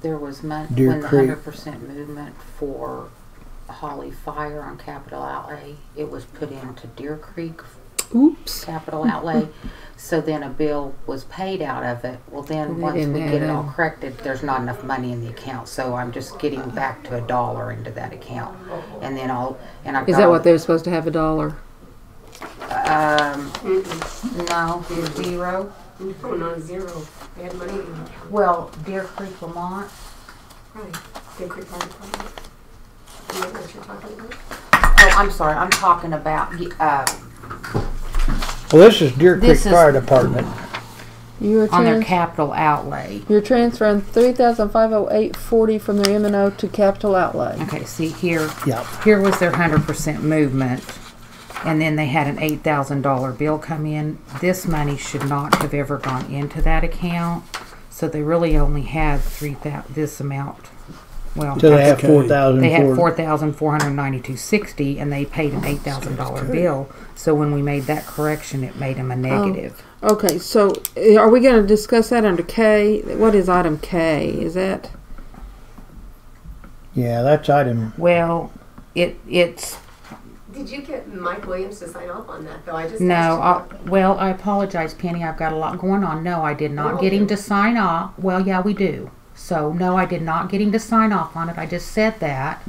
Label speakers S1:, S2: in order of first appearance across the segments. S1: There was mon-
S2: Deer
S1: when the
S2: Creek.
S1: hundred percent movement for Holly Fire on capital outlay, it was put into Deer Creek
S3: Oops.
S1: capital outlay. So then a bill was paid out of it. Well, then,
S3: They
S1: once
S3: didn't
S1: we get it
S3: add
S1: all
S3: in.
S1: corrected, there's not enough money in the account. So I'm just getting back to a dollar into that account. And then I'll, and I've
S3: Is
S1: got-
S3: that what they're supposed to have a dollar?
S1: Um, no, zero.
S4: No, not zero. They had money in the account.
S1: Well, Deer Creek, Vermont,
S4: Right. Good quick fire department. You know what you're talking about?
S1: oh, I'm sorry, I'm talking about, uh,
S2: Well, this is Deer Creek
S1: This is-
S2: Fire Department.
S3: You are
S1: on their
S3: trans-
S1: capital outlay.
S3: you're transferring three thousand five hundred eight forty from their M and O to capital outlay.
S1: Okay, see here,
S2: Yep.
S1: here was their hundred percent movement, and then they had an eight thousand dollar bill come in. This money should not have ever gone into that account, so they really only had three thou, this amount. Well,
S2: So they have
S5: Okay.
S2: four thousand.
S1: they had four thousand four hundred ninety-two sixty, and they paid an eight thousand dollar bill. So when we made that correction, it made them a negative.
S3: Okay, so uh, are we going to discuss that under K? What is item K? Is that
S2: Yeah, that's item.
S1: Well, it it's
S4: Did you get Mike Williams to sign off on that though? I just
S1: No,
S4: asked
S1: I,
S4: you about
S1: well, I apologize, Penny. I've got a lot going on. No, I did not
S4: Oh,
S1: get him
S4: okay.
S1: to sign off. Well, yeah, we do. So, no, I did not get him to sign off on it. I just said that.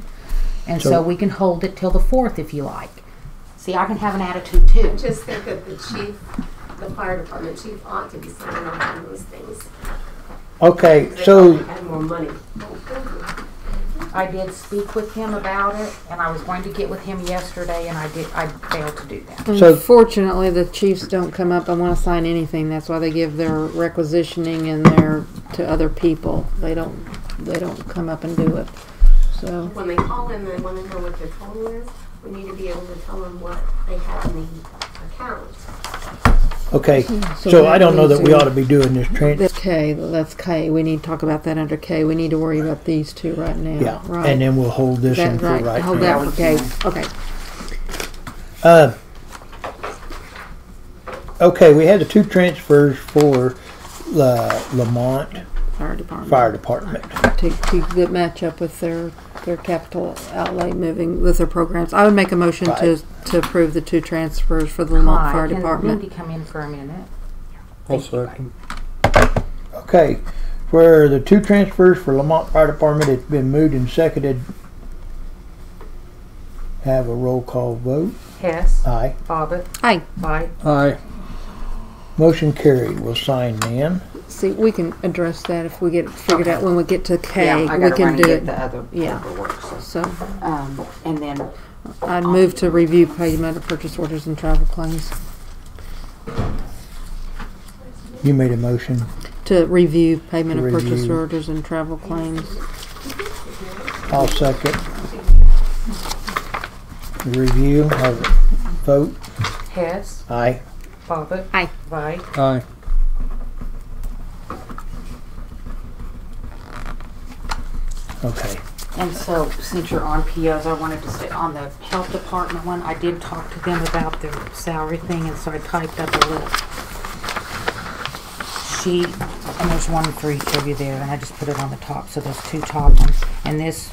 S1: And so,
S2: So-
S1: we can hold it till the 4th if you like. See, I can have an attitude too.
S4: that. Just think that the chief, the fire department chief ought to be signing off on those things.
S2: Okay,
S4: 'cause they
S2: so
S4: probably Had more money.
S1: I did speak with him about it, and I was going to get with him yesterday, and I did. I failed to do that.
S2: So-
S3: unfortunately the chiefs don't come up and want to sign anything. That's why they give their requisitioning and their to other people. They don't they don't come up and do it. So
S4: When they call in, they wanna know what their total is. We need to be able to tell them what they have in the account.
S2: okay,
S3: So
S2: so I
S3: that
S2: don't know that we
S3: leaves
S2: ought to be doing this trans.
S3: that's K. That's K. We need to talk about that under K. We need to worry about these two right now.
S2: Yeah,
S3: Right.
S2: and then we'll hold this one
S3: that,
S2: for
S3: right.
S2: right
S3: Hold
S2: now.
S3: that for K. Okay.
S2: Uh, okay, we had the two transfers for the Lamont
S3: Fire department.
S2: Fire Department.
S3: to, to good match up with their, their capital outlay moving with their programs. I would make a motion to, to approve the two transfers for the Lamont Fire Department.
S1: Mindy come in for a minute?
S5: I'll second.
S2: Okay, where the two transfers for Lamont Fire Department has been moved and seconded. Have a roll call vote.
S1: Hess,
S2: Aye.
S1: Bobbit,
S3: Hey,
S1: Bite.
S5: Aye.
S2: Motion carried. We'll sign then.
S3: see, we can address that if we get it figured out when we get to K,
S1: I
S3: we
S1: gotta
S3: can
S1: run and
S3: do
S1: get
S3: it.
S1: the other
S3: Yeah.
S1: paperwork. so-
S3: So
S1: Um, and then
S3: I'd move to review payment of purchase orders and travel claims,
S2: You made a motion.
S3: to review payment of purchase
S2: Review.
S3: orders and travel claims.
S2: I'll second. Review, have a vote.
S1: Hess,
S2: Aye.
S1: Bobbit,
S3: Aye.
S1: Bite.
S5: Aye.
S2: Okay.
S1: And so, since you're on POs, I wanted to say on the health department one, I did talk to them about their salary thing, and so I typed up a little sheet, and there's one for each of you there, and I just put it on the top, so there's two top ones. And this,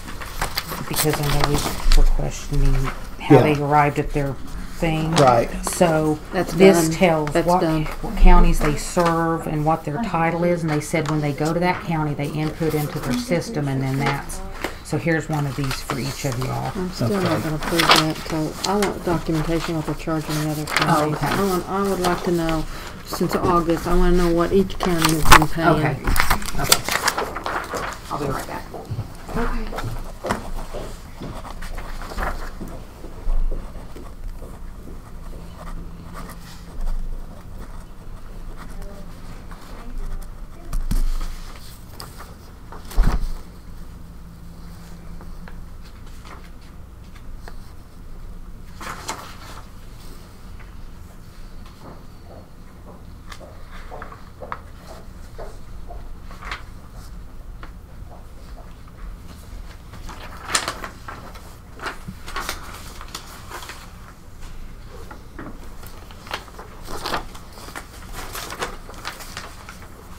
S1: because I know we were questioning how they
S2: Yeah.
S1: arrived at their thing.
S2: Right.
S1: So,
S3: That's
S1: this
S3: done.
S1: tells
S3: That's
S1: what
S3: done.
S1: what counties they serve and what their title is, and they said when they go to that county, they input into their system, and then that's, so here's one of these for each of y'all.
S3: I'm still not gonna approve that, so I want documentation what they're charging the other counties.
S1: okay.
S3: I want, I would like to know, since August, I wanna know what each Oh, county has been paying.
S1: I'll be right back.
S4: Okay.